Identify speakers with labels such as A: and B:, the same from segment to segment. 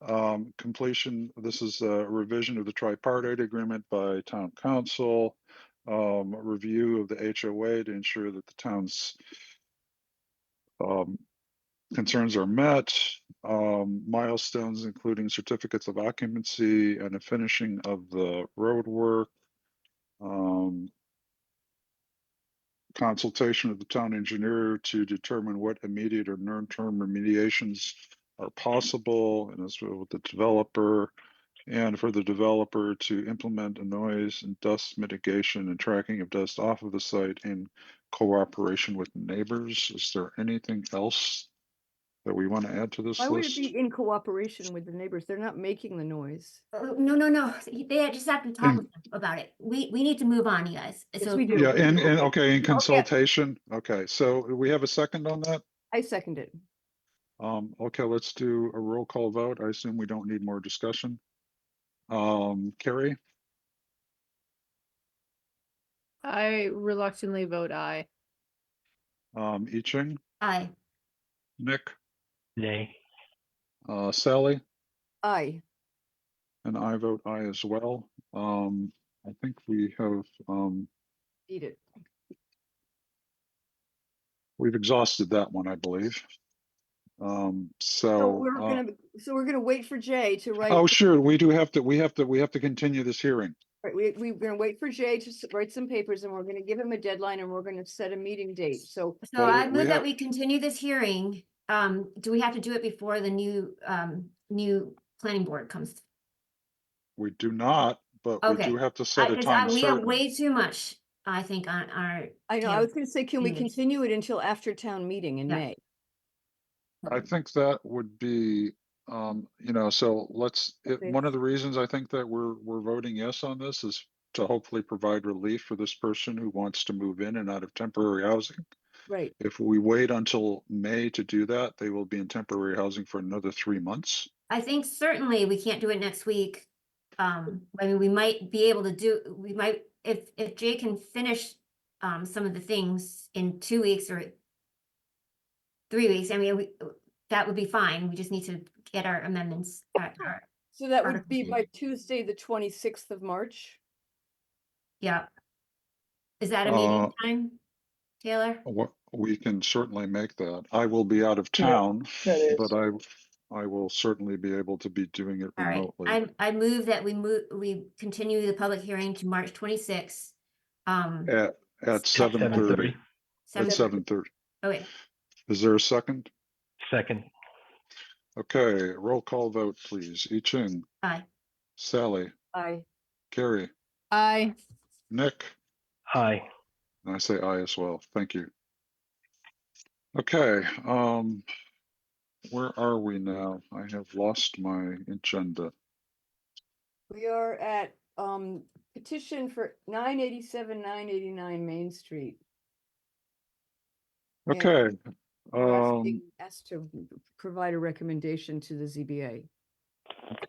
A: Um, completion, this is a revision of the tripartite agreement by town council. Um, a review of the HOA to ensure that the town's um, concerns are met. Um, milestones, including certificates of occupancy and a finishing of the roadwork. Um, consultation of the town engineer to determine what immediate or near-term remediations are possible, and as well with the developer, and for the developer to implement a noise and dust mitigation and tracking of dust off of the site in cooperation with neighbors. Is there anything else that we want to add to this
B: Why would it
A: list?
B: be in cooperation with the neighbors? They're not making the noise.
C: Oh, no, no, no, he- they just have to talk with them about it. We, we need to move on, you guys.
B: Yes,
C: So,
B: we do.
A: Mm. Yeah, and, and, okay, in consultation, okay, so we have a second on that?
B: I second it.
A: Um, okay, let's do a roll call vote. I assume we don't need more discussion. Um, Carrie,
D: I reluctantly vote aye.
A: um, I Ching,
C: aye,
A: Nick,
E: Nay.
A: uh, Sally,
B: Aye.
A: and I vote aye as well. Um, I think we have, um,
B: Beat it.
A: we've exhausted that one, I believe. Um,
B: So
A: so,
B: we're
A: uh,
B: gonna, so we're gonna wait for Jay to write.
A: oh, sure, we do have to, we have to, we have to continue this hearing.
B: Right, we, we're gonna wait for Jay to s- write some papers and we're gonna give him a deadline and we're gonna set a meeting date, so.
C: so
A: Well,
C: I
A: we
C: move
A: have-
C: that we continue this hearing. Um, do we have to do it before the new, um, new planning board comes?
A: We do not, but we
C: Okay.
A: do have to set
C: I-
A: a
C: 'cause I-
A: time
C: We have
A: certain.
C: way too much, I think, on our.
B: I know, I
C: Yeah.
B: was gonna say, can we
C: Yeah.
B: continue it until after town meeting in
C: Yeah.
B: May?
A: I think that would be, um, you know, so let's, it,
B: Okay.
A: one of the reasons I think that we're, we're voting yes on this is to hopefully provide relief for this person who wants to move in and out of temporary housing.
B: Right,
A: If we wait until May to do that, they will be in temporary housing for another three months.
C: I think certainly we can't do it next week. Um, I mean, we might be able to do, we might, if, if Jay can finish, um, some of the things in two weeks or three weeks, I mean, we, that would be fine. We just need to get our amendments. uh, our-
B: so that would
C: Article
B: be
C: two.
B: by Tuesday, the twenty-sixth of March.
C: Yeah. Is that a meeting
A: Uh,
C: time, Taylor?
A: What, we can certainly make that. I will be out of town, but I, I will certainly be able to be doing it
C: All right,
A: remotely.
C: I, I move that we move, we continue the public hearing to March twenty-sixth. Um,
A: At, at
C: Seven
A: seven thirty,
C: seven-
A: at seven thirty.
C: oh wait,
A: Is there a second?
E: Second,
A: Okay, roll call vote, please. I Ching,
C: aye,
A: Sally,
B: Aye.
A: Carrie,
D: Aye.
A: Nick,
E: aye.
A: and I say aye as well. Thank you. Okay, um, where are we now? I have lost my agenda.
B: We are at, um, petition for nine eighty-seven, nine eighty-nine Main Street. Yeah.
A: Okay,
B: We're
A: um,
B: asking- Asked to provide a recommendation to the ZBA.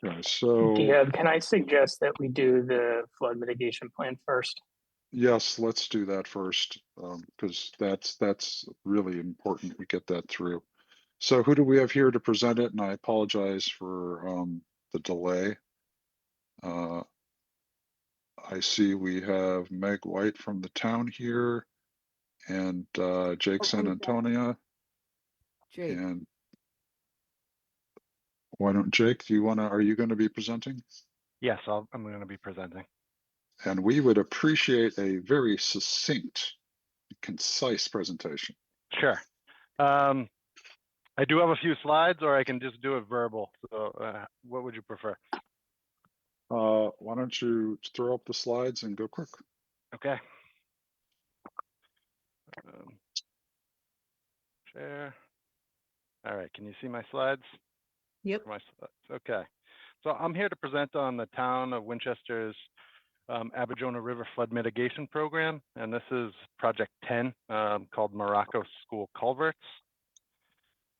A: okay, so,
F: Deb, can I suggest that we do the flood mitigation plan first?
A: yes, let's do that first, um, because that's, that's really important we get that through. So who do we have here to present it? And I apologize for, um, the delay. Uh, I see we have Meg White from the town here and, uh, Jake
B: Oh,
A: San
B: I'm sorry.
A: Antonio
B: Jake,
A: and why don't Jake, do you wanna, are you gonna be presenting?
E: Yes, I'll, I'm going to be presenting.
A: And we would appreciate a very succinct, concise presentation.
E: Sure. Um, I do have a few slides, or I can just do it verbal. So, uh, what would you prefer?
A: Uh, why don't you throw up the slides and go quick?
E: Okay. Um, Share. All right, can you see my slides?
D: Yep.
E: My slides, okay. So I'm here to present on the town of Winchester's um, Abidjona River Flood Mitigation Program, and this is Project 10, um, called Morocco School Culverts.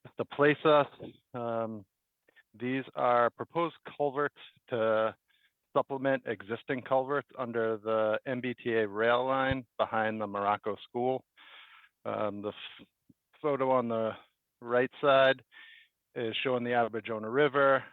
E: Just To place us, um, these are proposed culverts to supplement existing culverts under the MBTA rail line behind the Morocco School. Um, the f- photo on the right side is showing the Abidjona River